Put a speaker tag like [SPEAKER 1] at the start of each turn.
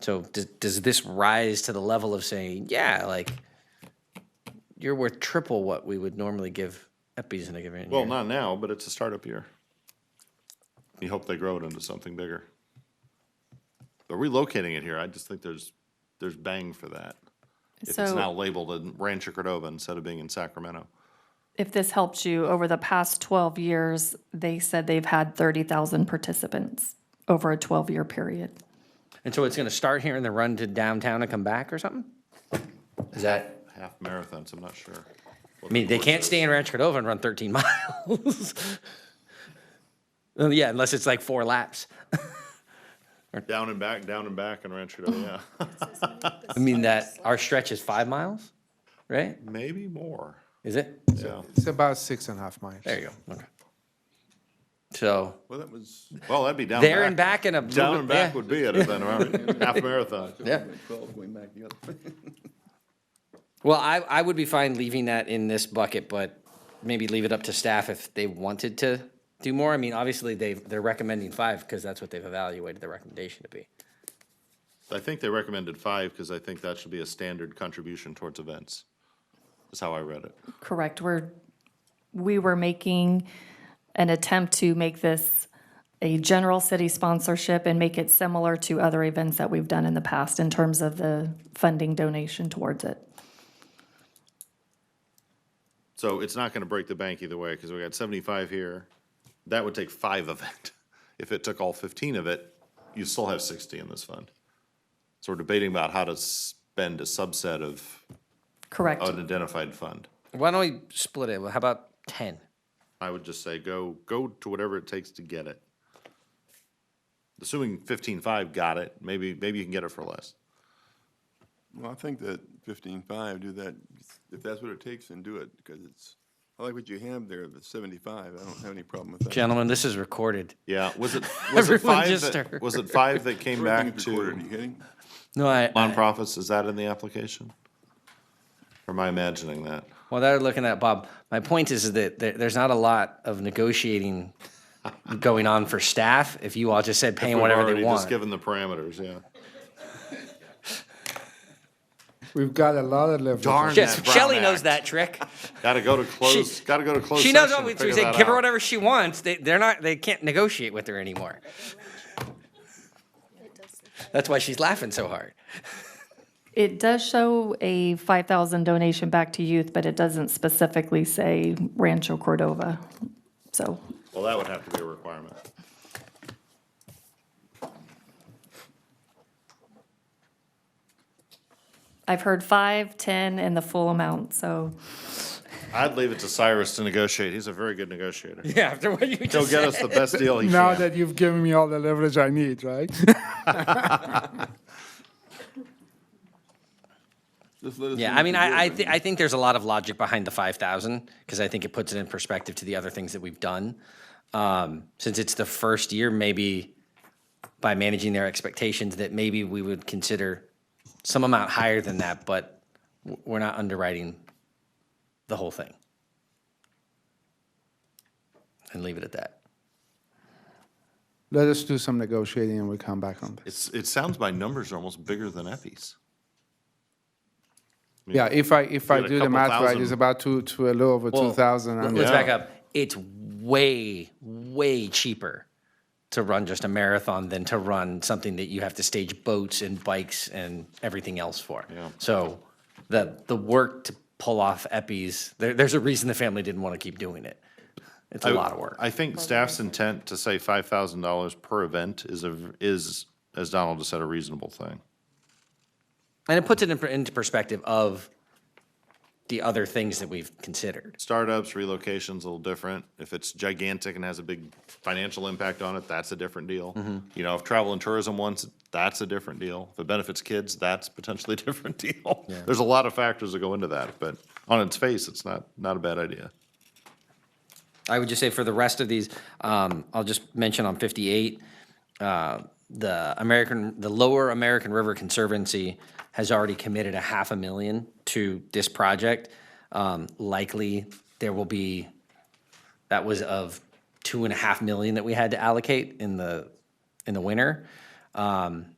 [SPEAKER 1] So does, does this rise to the level of saying, yeah, like you're worth triple what we would normally give Eppies in a given
[SPEAKER 2] Well,
[SPEAKER 1] year?
[SPEAKER 2] not now, but it's a startup year. You hope they grow it into something bigger. But relocating it here, I just think there's, there's bang for that. If it's
[SPEAKER 3] So-
[SPEAKER 2] now labeled in Rancho Cordova instead of being in Sacramento.
[SPEAKER 3] If this helps you, over the past 12 years, they said they've had 30,000 participants over a 12-year period.
[SPEAKER 1] And so it's going to start here and then run to downtown and come back or something? Is that,
[SPEAKER 2] Half marathons, I'm not sure.
[SPEAKER 1] I mean, they can't stay in Rancho Cordova and run 13 miles. Well, yeah, unless it's like four laps.
[SPEAKER 2] Down and back, down and back in Rancho Cordova, yeah.
[SPEAKER 1] I mean, that our stretch is five miles, right?
[SPEAKER 2] Maybe more,
[SPEAKER 1] Is it?
[SPEAKER 2] yeah.
[SPEAKER 4] It's about six and a half miles.
[SPEAKER 1] There you go. Okay. So
[SPEAKER 2] Well, that was, well, that'd be down
[SPEAKER 1] there and back in a little
[SPEAKER 2] Down
[SPEAKER 1] bit-
[SPEAKER 2] and back
[SPEAKER 1] yeah.
[SPEAKER 2] would be it, then, right? Half marathon.
[SPEAKER 1] Yeah.
[SPEAKER 5] Twelve going back the other way.
[SPEAKER 1] Well, I, I would be fine leaving that in this bucket, but maybe leave it up to staff if they wanted to do more. I mean, obviously they they're recommending five because that's what they've evaluated the recommendation to be.
[SPEAKER 2] I think they recommended five because I think that should be a standard contribution towards events. Is how I read it.
[SPEAKER 3] Correct, we're, we were making an attempt to make this a general city sponsorship and make it similar to other events that we've done in the past in terms of the funding donation towards it.
[SPEAKER 2] So it's not going to break the bank either way because we got seventy-five here. That would take five of it. If it took all fifteen of it, you still have sixty in this fund. So we're debating about how to spend a subset of
[SPEAKER 3] Correct.
[SPEAKER 2] an identified fund.
[SPEAKER 1] Why don't we split it? Well, How about ten?
[SPEAKER 2] I would just say go, go to whatever it takes to get it. Assuming fifteen-five got it, maybe, maybe you can get it for less.
[SPEAKER 5] Well, I think that fifteen-five, do that, if that's what it takes, then do it, because it's, I like what you have there, the seventy-five, I don't have any problem with that.
[SPEAKER 1] Gentlemen, this is recorded.
[SPEAKER 2] Yeah, was it, was it
[SPEAKER 1] Everyone
[SPEAKER 2] five
[SPEAKER 1] just
[SPEAKER 2] that,
[SPEAKER 1] stirred.
[SPEAKER 2] was it five that came back
[SPEAKER 5] Everything's recorded, Are
[SPEAKER 2] to
[SPEAKER 5] you kidding?
[SPEAKER 1] No, I,
[SPEAKER 2] nonprofits, is that in the application? Or am I imagining that?
[SPEAKER 1] well, they're looking at Bob. My point is that there, there's not a lot of negotiating going on for staff. If you all just said paying
[SPEAKER 2] We've
[SPEAKER 1] whatever
[SPEAKER 2] already
[SPEAKER 1] they want,
[SPEAKER 2] Just given the parameters, yeah.
[SPEAKER 4] We've got a lot of leverage.
[SPEAKER 2] Darn
[SPEAKER 1] yes,
[SPEAKER 2] that Brown
[SPEAKER 1] Shelley knows
[SPEAKER 2] Act.
[SPEAKER 1] that trick.
[SPEAKER 2] Gotta go to close, gotta go to close
[SPEAKER 1] She
[SPEAKER 2] session
[SPEAKER 1] knows what we,
[SPEAKER 2] to
[SPEAKER 1] we
[SPEAKER 2] figure
[SPEAKER 1] say.
[SPEAKER 2] that
[SPEAKER 1] Give her
[SPEAKER 2] out.
[SPEAKER 1] whatever she wants. They, they're not. They can't negotiate with her anymore. That's why she's laughing so hard.
[SPEAKER 3] It does show a 5,000 donation back to youth, but it doesn't specifically say Rancho Cordova. So
[SPEAKER 2] Well, that would have to be a requirement.
[SPEAKER 3] I've heard five, 10, and the full amount, so
[SPEAKER 2] I'd leave it to Cyrus to negotiate. He's a very good negotiator.
[SPEAKER 1] Yeah, after what you
[SPEAKER 2] He'll
[SPEAKER 1] just
[SPEAKER 2] get us the best deal he
[SPEAKER 4] Now
[SPEAKER 2] can.
[SPEAKER 4] that you've given me all the leverage I need, right?
[SPEAKER 5] Just let us know
[SPEAKER 1] Yeah,
[SPEAKER 5] what
[SPEAKER 1] I mean,
[SPEAKER 5] you do,
[SPEAKER 1] I I,
[SPEAKER 5] and
[SPEAKER 1] th- I think there's a lot of logic behind the five thousand because I think it puts it in perspective to the other things that we've done. Um, since it's the first year, maybe by managing their expectations, that maybe we would consider some amount higher than that, but w- we're not underwriting the whole thing, and leave it at that.
[SPEAKER 4] Let us do some negotiating and we'll come back on
[SPEAKER 2] It's,
[SPEAKER 4] this.
[SPEAKER 2] it sounds my numbers are almost bigger than Effie's.
[SPEAKER 4] Yeah, if I, if I
[SPEAKER 2] got a
[SPEAKER 4] do the
[SPEAKER 2] couple
[SPEAKER 4] math right,
[SPEAKER 2] thousand.
[SPEAKER 4] it's about two, to a little over
[SPEAKER 1] Well,
[SPEAKER 4] two thousand.
[SPEAKER 1] let-
[SPEAKER 4] and
[SPEAKER 1] Let's
[SPEAKER 2] Yeah.
[SPEAKER 1] back up. It's way, way cheaper to run just a marathon than to run something that you have to stage boats and bikes and everything else for. So the the work to pull off eppies, there, there's a reason the family didn't want to keep doing it. It's a lot of work.
[SPEAKER 2] I think staff's intent to say five thousand dollars per event is a, is, as Donald just said, a reasonable thing.
[SPEAKER 1] and it puts it in, per- into perspective of the other things that we've considered.
[SPEAKER 2] Startups, relocations, a little different. If it's gigantic and has a big financial impact on it, that's a different deal. You know, if travel and tourism wants, it, that's a different deal. If it benefits kids, that's potentially a different deal. There's a lot of factors that go into that, but on its face, it's not, not a bad idea.
[SPEAKER 1] I would just say for the rest of these, um, I'll just mention on 58, uh, the American, the Lower American River Conservancy has already committed a half a million to this project. Um, likely, there will be, that was of two and a half million that we had to allocate in the, in the winter. Um,